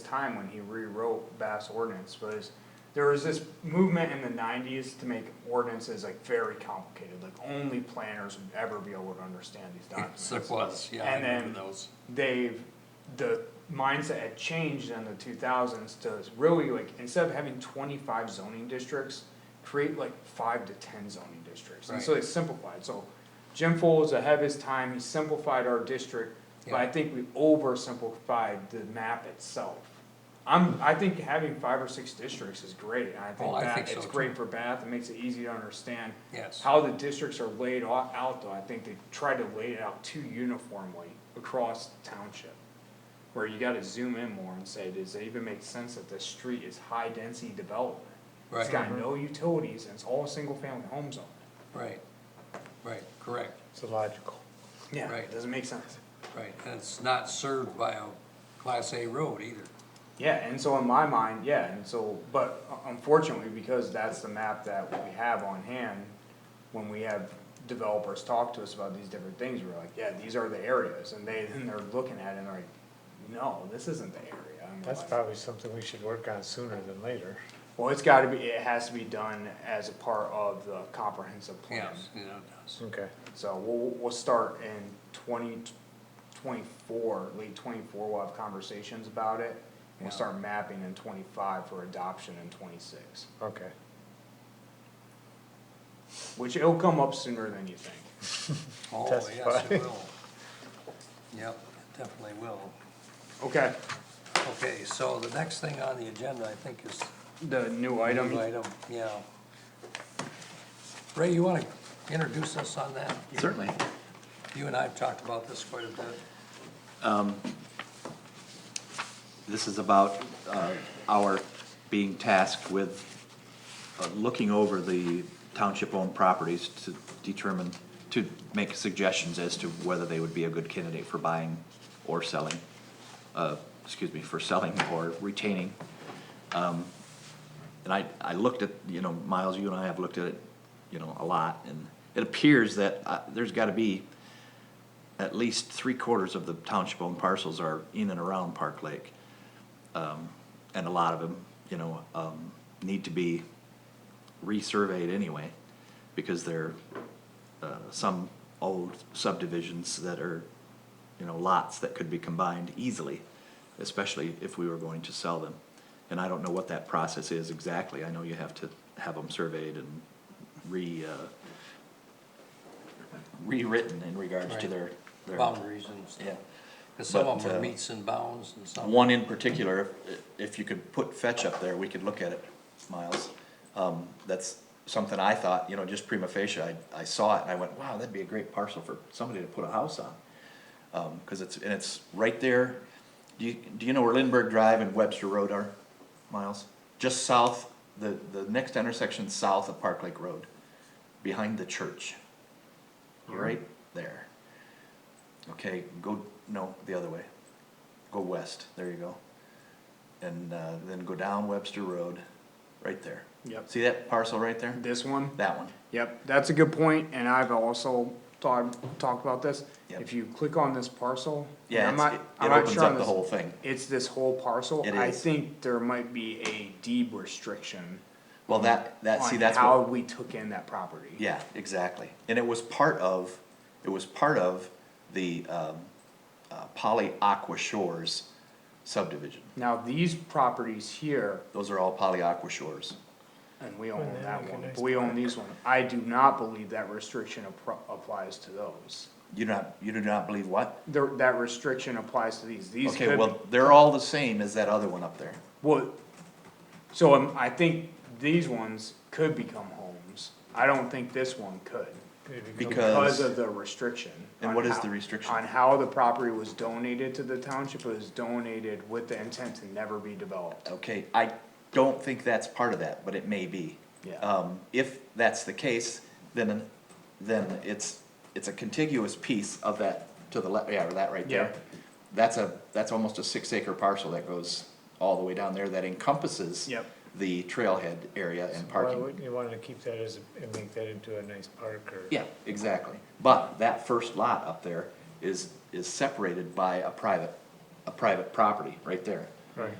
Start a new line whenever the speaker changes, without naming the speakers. time when he rewrote Bass ordinance was, there was this movement in the nineties to make ordinances like very complicated, like only planners would ever be able to understand these documents.
There was, yeah, I
And then-
remember those.
they've the mindset had changed in the two thousands to really like instead of having twenty five zoning districts, create like five to ten zoning districts. And so
Right.
they simplified. So Jim Full was ahead of his time. He simplified our district, but I
Yeah.
think we oversimplified the map itself. I'm I think having five or six districts is great. And I think
Oh, I
that
think so
it's
too.
great for Bath. It makes it easy to understand.
Yes.
How the districts are laid au- out, though, I think they tried to lay it out too uniformly across the township. Where you gotta zoom in more and say, does it even make sense that this street is high-density development? It's
Right.
got no utilities and it's all single-family homes on it.
Right, right, correct,
It's illogical.
Yeah,
Right.
it doesn't make sense.
right, and it's not served by a class A road either.
Yeah, and so in my mind, yeah, and so, but unfortunately, because that's the map that we have on hand, when we have developers talk to us about these different things, we're like, yeah, these are the areas, and they, then they're looking at it and they're like, no, this isn't the area. And we're
That's
like,
probably something we should work on sooner than later.
Well, it's gotta be, it has to be done as a part of the comprehensive plan.
Yes, you know, it does.
Okay.
So we'll, we'll start in twenty twenty-four, late twenty-four, we'll have conversations about it. and We'll
Yeah.
start mapping in twenty-five for adoption in twenty-six.
Okay.
Which it'll come up sooner than you think.
Oh, yes,
Testify.
it will. Yep, it definitely will.
Okay.
Okay, so the next thing on the agenda, I think, is
The new
the
item.
new item, yeah. Ray, you wanna introduce us on that?
Certainly.
You and I have talked about this quite a bit.
This is about uh, our being tasked with uh, looking over the township-owned properties to determine, to make suggestions as to whether they would be a good candidate for buying or selling, uh, excuse me, for selling or retaining. Um, And I, I looked at, you know, Miles, you and I have looked at it, you know, a lot, and it appears that uh, there's gotta be at least three quarters of the township-owned parcels are in and around Park Lake. Um, and a lot of them, you know, um, need to be resurveyed anyway, because they're, uh, some old subdivisions that are, you know, lots that could be combined easily, especially if we were going to sell them. And I don't know what that process is exactly, I know you have to have them surveyed and re, uh, rewritten in regards to their, their.
Boundaries and stuff.
Yeah.
Cause some of
But,
them are
uh,
meets and bounds and some.
One in particular, if- if you could put fetch up there, we could look at it, Miles. Um, that's something I thought, you know, just prima facie, I, I saw it and I went, wow, that'd be a great parcel for somebody to put a house on. Um, cause it's, and it's right there, do you, do you know where Lindbergh Drive and Webster Road are, Miles? Just south, the, the next intersection south of Park Lake Road, behind the church. Right there. Okay, go, no, the other way go west, there you go. And uh, then go down Webster Road, right there.
Yep.
See that parcel right there?
This one.
That one.
Yep, that's a good point, and I've also thought, talked about this.
Yep.
If you click on this parcel. and
Yeah,
I'm
it's-
not-
it-
I'm
it
not
opens
sure on
up the
this-
whole thing.
It's this whole parcel.
It
I
is.
think there might be a deed restriction.
Well, that, that, see,
on
that's
How
what,
we took in that property.
yeah, exactly. And it was part of, it was part of the um, uh, Poly Aqua Shores subdivision.
Now, these properties here,
Those are all Poly Aqua Shores.
and we own
then
that
we can
one, but
expand
we own these one, I do not believe that restriction appro- applies to those.
You do not, you do not believe what?
There, that restriction applies to these, these
Okay,
could,
well, they're all the same as that other one up there.
well, so um, I think these ones could become homes. I don't think this one could, because
Because,
of the restriction.
And
on
what is
how-
the restriction?
On how the property was donated to the township, it was donated with the intent to never be developed.
okay, I don't think that's part of that, but it may be.
Yeah.
Um, if that's the case, then, then it's, it's a contiguous piece of that, to the left, yeah, or that right there.
Yeah.
That's a, that's almost a six acre parcel that goes all the way down there that encompasses
Yep.
the trailhead area and
Why
parking.
wouldn't you wanna keep that as, a- and make that into a nice park or?
Yeah, exactly. But that first lot up there is, is separated by a private, a private property right there.
Right.